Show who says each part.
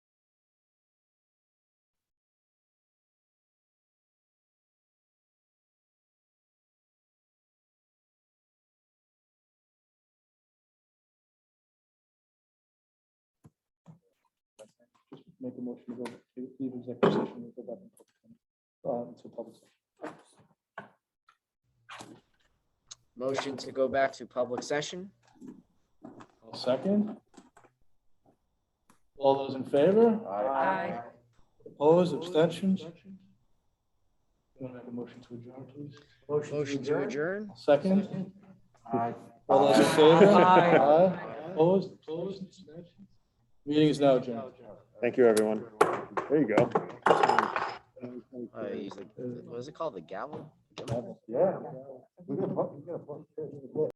Speaker 1: make a motion to go to leave executive session and go back into public session, uh, into public session.
Speaker 2: Motion to go back to public session.
Speaker 1: I'll Second. All those in favor?
Speaker 3: Aye.
Speaker 1: Opposed, abstentions? You want to make a motion to adjourn, please?
Speaker 2: Motion to adjourn.
Speaker 1: Second? All those in favor?
Speaker 3: Aye.
Speaker 1: Opposed, opposed, abstentions? Meeting is now adjourned.
Speaker 4: Thank you, everyone. There you go.
Speaker 2: Uh, use the- Was it called the gavel?
Speaker 4: Yeah. We got a bu- we got a bunch.